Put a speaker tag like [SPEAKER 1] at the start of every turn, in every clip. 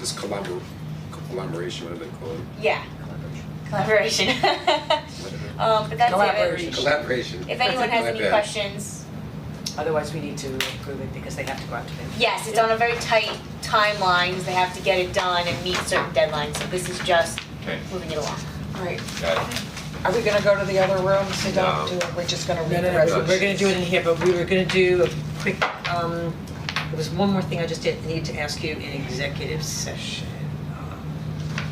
[SPEAKER 1] this collabor- collaboration, what do they call it?
[SPEAKER 2] Yeah,
[SPEAKER 1] Collaboration.
[SPEAKER 2] collaboration.
[SPEAKER 1] Whatever.
[SPEAKER 2] Um, but that's it.
[SPEAKER 3] Collaboration.
[SPEAKER 1] Collaboration.
[SPEAKER 2] If anyone has any
[SPEAKER 1] My bad.
[SPEAKER 2] questions,
[SPEAKER 3] Otherwise, we need to approve it because they have to go out to bid.
[SPEAKER 2] yes, it's on a very tight timeline, because they have to get it done and meet certain deadlines, so this is just
[SPEAKER 4] Okay,
[SPEAKER 2] moving it along.
[SPEAKER 5] Right,
[SPEAKER 4] got it.
[SPEAKER 5] are we gonna go to the other room, so
[SPEAKER 4] No.
[SPEAKER 5] don't do it, we're just gonna
[SPEAKER 3] No,
[SPEAKER 5] read the
[SPEAKER 3] no, no,
[SPEAKER 5] resolution?
[SPEAKER 3] we're gonna do it in here, but we were gonna do a quick, um, there was one more thing I just did, need to ask you in executive session.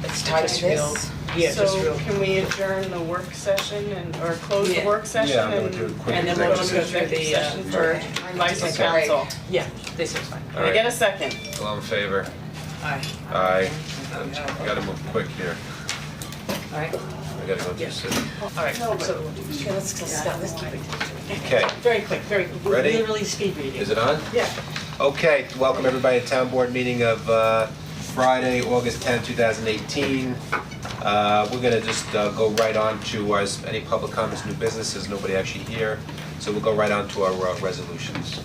[SPEAKER 5] It's tied to this.
[SPEAKER 3] Yeah, just real.
[SPEAKER 6] So can we adjourn the work session and, or close the
[SPEAKER 3] Yeah.
[SPEAKER 6] work session
[SPEAKER 7] Yeah, I'm gonna
[SPEAKER 6] and
[SPEAKER 7] do a quick
[SPEAKER 3] And then we'll
[SPEAKER 6] go
[SPEAKER 3] just
[SPEAKER 6] into
[SPEAKER 3] go through
[SPEAKER 6] executive
[SPEAKER 3] the, uh,
[SPEAKER 6] session for license
[SPEAKER 3] Okay.
[SPEAKER 6] council?
[SPEAKER 3] Yeah, this is fine.
[SPEAKER 4] All
[SPEAKER 6] Can I get
[SPEAKER 4] right,
[SPEAKER 6] a second?
[SPEAKER 4] all in favor?
[SPEAKER 3] Aye.
[SPEAKER 4] Aye. We gotta move quick here.
[SPEAKER 3] Alright,
[SPEAKER 4] We gotta go
[SPEAKER 3] Yeah.
[SPEAKER 4] to city.
[SPEAKER 3] alright, so,
[SPEAKER 5] Okay, let's, let's stop, let's keep it.
[SPEAKER 4] Okay,
[SPEAKER 3] very quick, very, we're
[SPEAKER 4] Ready?
[SPEAKER 3] literally speed reading.
[SPEAKER 4] is it on?
[SPEAKER 3] Yeah.
[SPEAKER 4] Okay, welcome everybody to town board meeting of uh, Friday, August 10, 2018. Uh, We're gonna just uh, go right on to our, any public comments, new businesses, nobody actually here. So we'll go right on to our uh, resolutions.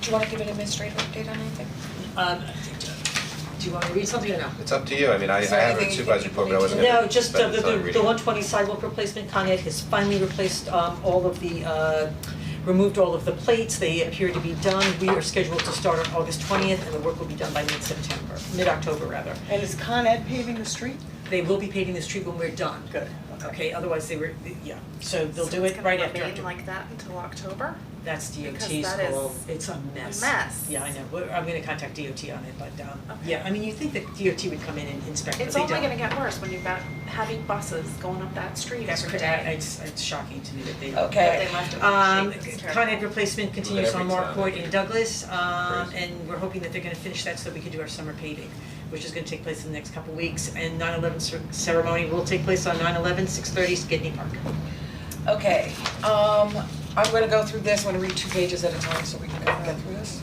[SPEAKER 5] Do you wanna give an administrative update on anything?
[SPEAKER 3] Um, do you wanna read something or no?
[SPEAKER 4] It's up to you, I mean, I I
[SPEAKER 5] Is there
[SPEAKER 4] have a
[SPEAKER 5] anything you
[SPEAKER 4] supervisor
[SPEAKER 5] think
[SPEAKER 4] report, but I
[SPEAKER 5] we
[SPEAKER 4] wasn't
[SPEAKER 8] No,
[SPEAKER 4] gonna
[SPEAKER 8] just uh,
[SPEAKER 4] spend
[SPEAKER 8] the
[SPEAKER 4] the time
[SPEAKER 8] the
[SPEAKER 4] reading.
[SPEAKER 8] the one twenty sidewalk replacement, Con Ed has finally replaced um all of the uh removed all of the plates, they appear to be done, we are scheduled to start on August twentieth and the work will be done by mid-September, mid-October rather.
[SPEAKER 6] And is Con Ed paving the street?
[SPEAKER 8] They will be paving the street when we're done. Good. Okay, otherwise they were, yeah, so they'll do it right after.
[SPEAKER 9] It's gonna remain like that until October?
[SPEAKER 8] That's
[SPEAKER 9] because
[SPEAKER 8] DOT's
[SPEAKER 9] that is
[SPEAKER 8] goal, it's a mess.
[SPEAKER 9] mess.
[SPEAKER 8] Yeah, I know, We're- I'm gonna contact DOT on it, but um
[SPEAKER 9] Okay.
[SPEAKER 8] yeah, I mean, you think that DOT would come in and inspect, but
[SPEAKER 9] It's
[SPEAKER 8] they don't.
[SPEAKER 9] only gonna get worse when you've got heavy buses going up that street
[SPEAKER 8] That's
[SPEAKER 9] every
[SPEAKER 8] crazy,
[SPEAKER 9] day.
[SPEAKER 8] it's it's shocking to me that they
[SPEAKER 5] Okay.
[SPEAKER 9] That they left it in
[SPEAKER 8] Um,
[SPEAKER 9] shape, it's
[SPEAKER 8] Con
[SPEAKER 9] terrible.
[SPEAKER 8] Ed replacement continues
[SPEAKER 4] every
[SPEAKER 8] on
[SPEAKER 4] town,
[SPEAKER 8] Mark Point
[SPEAKER 4] I
[SPEAKER 8] in
[SPEAKER 4] think.
[SPEAKER 8] Douglas, um,
[SPEAKER 4] Crazy.
[SPEAKER 8] and we're hoping that they're gonna finish that so we can do our summer paving, which is gonna take place in the next couple weeks, and 9/11 cer- ceremony will take place on 9/11, 6:30, Skidney Park.
[SPEAKER 5] Okay, um, I'm gonna go through this, I'm gonna read two pages at a time so we can go get through this.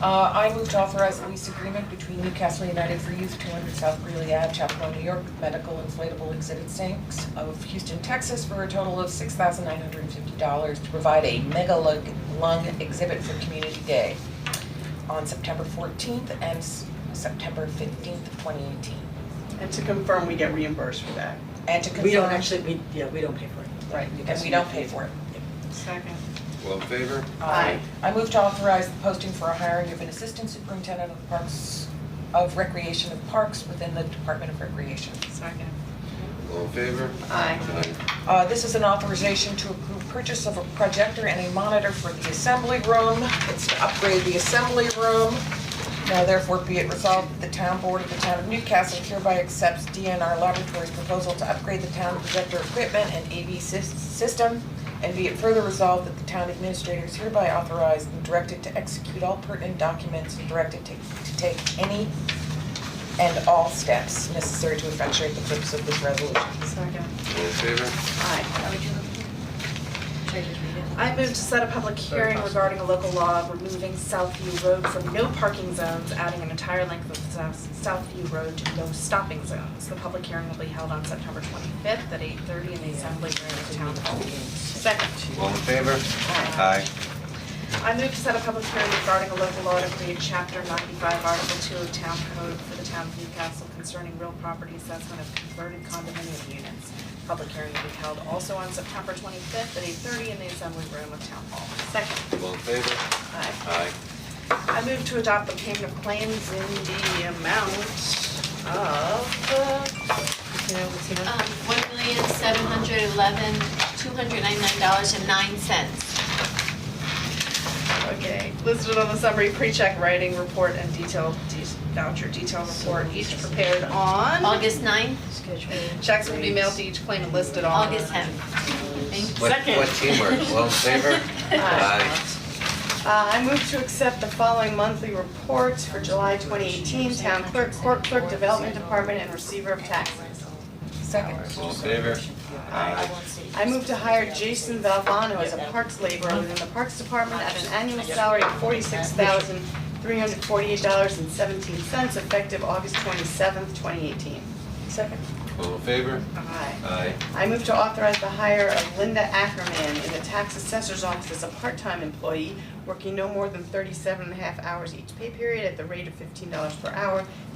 [SPEAKER 5] Uh, I move to authorize a lease agreement between Newcastle United for Youth, two hundred South Greeley Ave, Chapel Hill, New York, with medical inflatable exhibit sinks of Houston, Texas, for a total of six thousand nine hundred and fifty dollars to provide a mega lung, lung exhibit for Community Day on September fourteenth and s- September fifteenth, twenty eighteen.
[SPEAKER 6] And to confirm, we get reimbursed for that.
[SPEAKER 5] And to confirm.
[SPEAKER 8] We don't actually, we, yeah, we don't pay for it.
[SPEAKER 5] Right, and
[SPEAKER 8] Newcastle
[SPEAKER 5] we don't
[SPEAKER 8] United.
[SPEAKER 5] pay for it.
[SPEAKER 6] Second.
[SPEAKER 4] All in favor?
[SPEAKER 6] Aye.
[SPEAKER 5] I move to authorize the posting for a hiring of an assistant superintendent of parks, of recreation of parks within the Department of Recreation.
[SPEAKER 6] Second.
[SPEAKER 4] All in favor?
[SPEAKER 6] Aye.
[SPEAKER 5] Uh, this is an authorization to approve purchase of a projector and a monitor for the assembly room. It's to upgrade the assembly room. Now therefore be it resolved that the town board of the town of Newcastle hereby accepts DNR Laboratories proposal to upgrade the town projector equipment and AV sys- system. And be it further resolved that the town administrator is hereby authorized and directed to execute all pertinent documents and directed to, to take any and all steps necessary to effectuate the purpose of this resolution.
[SPEAKER 6] Second.
[SPEAKER 4] All in favor?
[SPEAKER 6] Aye.
[SPEAKER 2] Should I just read it?
[SPEAKER 9] I move to set a public hearing regarding a local law removing Southview Road from no parking zones, adding an entire length of South, Southview Road to no stopping zones. The public hearing will be held on September twenty-fifth at eight thirty in the Assembly Room of Town Hall. Second.
[SPEAKER 4] All in favor? Aye.
[SPEAKER 9] I move to set a public hearing regarding a local law to create chapter ninety-five, article two of town code for the town of Newcastle concerning real property assessment of converted condominium units. Public hearing will be held also on September twenty-fifth at eight thirty in the assembly room of town hall. Second.
[SPEAKER 4] All in favor?
[SPEAKER 9] Aye.
[SPEAKER 4] Aye.
[SPEAKER 9] I move to adopt the payment of claims in the amount of, uh, you know, what's the amount?
[SPEAKER 10] Um, one million, seven hundred eleven, two hundred ninety-nine dollars and nine cents.
[SPEAKER 9] Okay, listed on the summary, pre-check writing report and detailed de- voucher detail report, each prepared on.
[SPEAKER 10] August ninth,
[SPEAKER 9] Checks will be mailed to each claimant listed on.
[SPEAKER 10] August tenth.
[SPEAKER 4] What, what teamwork? All in favor? Aye.
[SPEAKER 9] Uh, I move to accept the following monthly reports for July twenty eighteen, town clerk, court clerk, development department, and receiver of taxes.
[SPEAKER 5] Second.
[SPEAKER 4] All in favor? Aye.
[SPEAKER 9] I move to hire Jason Valvano as a parks laborer within the parks department at an annual salary of forty-six thousand, three hundred forty-eight dollars and seventeen cents, effective August twenty-seventh, twenty eighteen.
[SPEAKER 5] Second.
[SPEAKER 4] All in favor?
[SPEAKER 9] Aye.
[SPEAKER 4] Aye.
[SPEAKER 9] I move to authorize the hire of Linda Ackerman in the tax assessor's office as a part-time employee, working no more than 37 and a half hours each pay period at the rate of fifteen dollars per hour,